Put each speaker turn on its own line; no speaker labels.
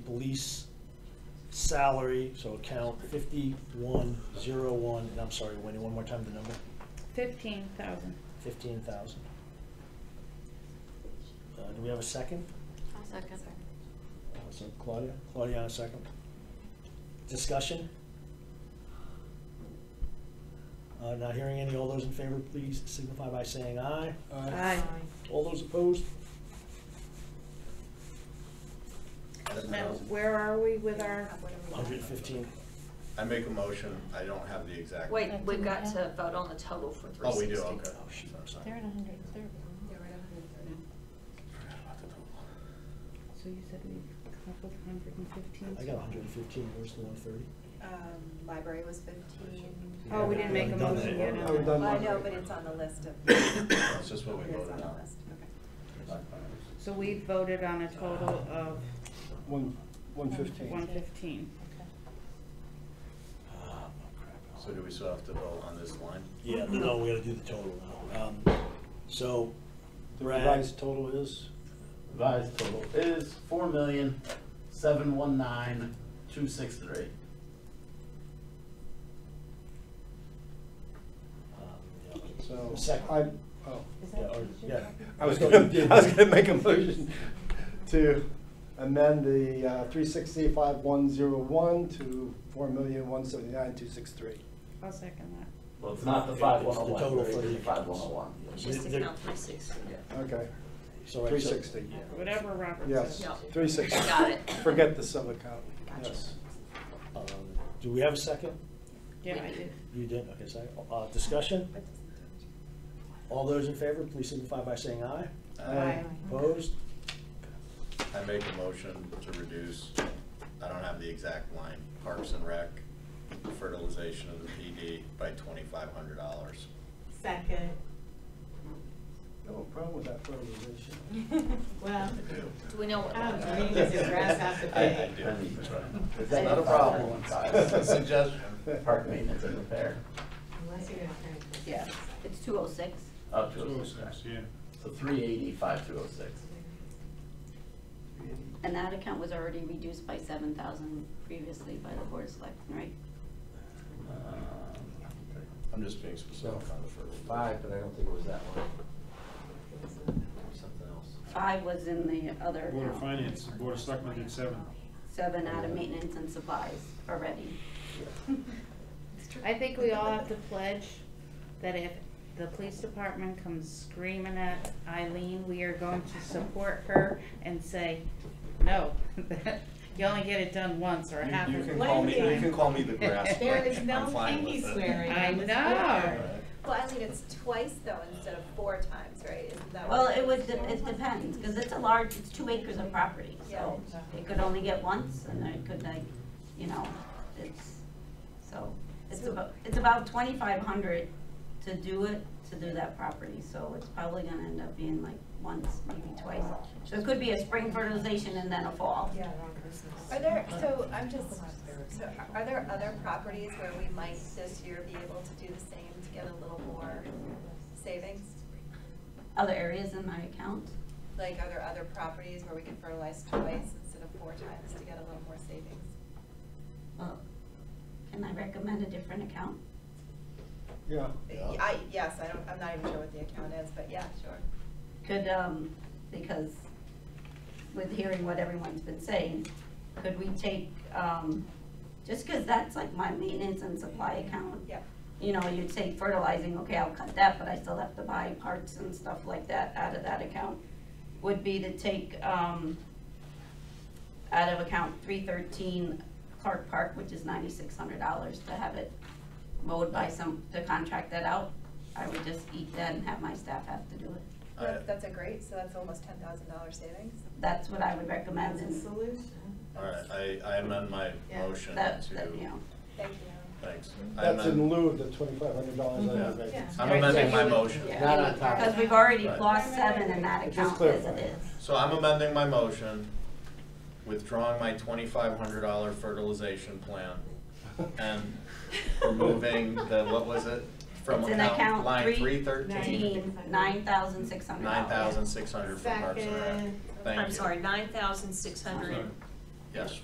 police salary, so account fifty-one zero one, and I'm sorry, Wendy, one more time the number,
Fifteen thousand.
fifteen thousand. Uh, do we have a second?
I'll second.
Uh, So Claudia, Claudia on a second. Discussion? Uh, not hearing any, all those in favor, please signify by saying aye.
Aye.
All those opposed?
Now, where are we with our,
Hundred and fifteen.
I make a motion, I don't have the exact.
Wait,
That
we've
didn't
got to
happen.
vote on the total for three
Oh, we
sixty.
do, okay.
Oh, shoot, I'm sorry.
They're at hundred and thirty.
Forgot about the total.
so you said we come up with hundred and fifteen?
I got hundred and fifteen, where's the one thirty?
Um, library was fifteen.
Oh, we didn't make a
Haven't done
motion Oh,
that
yet
yet.
on
Well,
that.
I know, but it's on the list of. It's
It's just what we voted
on the
on.
list, okay.
So we voted on a total of
One, one fifteen.
one fifteen.
Ah,
So do we still have to vote on this line?
Yeah, no, no, we gotta do the total now. Um, So,
The
Brad?
revised total is,
Revised total is four million, seven one nine, two six three.
um, yeah,
so. I,
Second.
oh.
Is
Yeah,
that
or-
what you're
yeah.
talking
I was gonna, I was gonna make a motion to amend the uh, three sixty-five one zero one to four million, one seventy-nine, two six three.
I'll second that.
Well, it's not the
It's
five one oh
the total
one,
for the
it's the five one oh one.
It's just
There-
account three sixty.
Okay,
so, right, so-
360.
yeah.
Whatever Robert
yes,
says.
Yeah.
three sixty.
Got it.
Forget the sub account,
Gotcha.
yes.
Um, Do we have a second?
Yeah, I did.
You did, okay, second. Uh, Discussion? All those in favor, please signify by saying aye.
Aye.
Opposed?
I make a motion to reduce, I don't have the exact line, Parks and Rec, fertilization of the PD by twenty-five hundred dollars.
Second.
No problem with that fertilization.
Well,
Do we know what?
I
line?
don't know, you just get grass after
I- I
pay.
do.
Is that not a problem? Uh, It's a
Suggestion.
Park maintenance and repair,
Unless you're gonna print. it.
Yeah, it's two oh six.
up to
oh
a six. Yeah. So three eighty, five two oh six.
And that account was already reduced by seven thousand previously by the board of selectmen, right?
I'm just being specific on the fertilization.
Five, but I don't think it was that one. Something else.
Five was in the other
Board of
account.
Finance, Board of Selectmen did seven.
Seven out of maintenance and supplies already.
I think we all have to pledge that if the police department comes screaming at Eileen, we are going to support her and say, no, you only get it done once or
You-
half
You
of the
can
time.
call me, you can call me the grass.
There
like,
is
I'm
no
fine with
pinky
it.
swearing.
I
on this
know.
board.
Right.
Well, I mean, it's twice though, instead of four times, right? Isn't that
Well,
what
it would,
is?
de- it depends, because it's a large, it's two acres of property, so it could only get once, and then it could like, you know, it's, so, it's about, it's about twenty-five hundred to do it, to do that property, so it's probably gonna end up being like once, maybe twice. So it could be a spring fertilization and then a fall.
Yeah, wrong person.
Are there, so I'm just, so are there other properties where we might this year be able to do the same to get a little more savings?
Other areas in my account,
Like, are there other properties where we can fertilize twice instead of four times to get a little more savings?
well, can I recommend a different account?
Yeah.
Yeah.
I, yes, I don't, I'm not even sure what the account is, but yeah, sure.
Could, um, because with hearing what everyone's been saying, could we take, um, just because that's like my maintenance and supply account.
Yeah.
You know, you'd say fertilizing, okay, I'll cut that, but I still have to buy parts and stuff like that out of that account. Would be to take, um, out of account three thirteen Clark Park, which is ninety-six hundred dollars to have it mowed by some, to contract that out. I would just eat that and have my staff have to do it.
I-
That's, that's a great, so that's almost ten thousand dollar savings.
That's what I would recommend and
All right, I, I amend my motion
that, that, you
to,
know.
Thank you.
thanks. I
That's in
amend-
lieu of the twenty-five hundred dollars I
Mm-hmm.
Yeah.
have vacancy.
I'm amending my
Yeah.
motion.
Not on top of
Because we've already
Right.
lost seven in that
Just
account as
clarify.
it is.
So I'm amending my motion, withdrawing my twenty-five hundred dollar fertilization plan and removing the, what was it? From
It's in account
Line
three
three thirteen,
Nine thousand six hundred dollars.
nine thousand six hundred for Parks and Rec.
Second.
Thank you.
nine thousand six
Sorry.
Yes.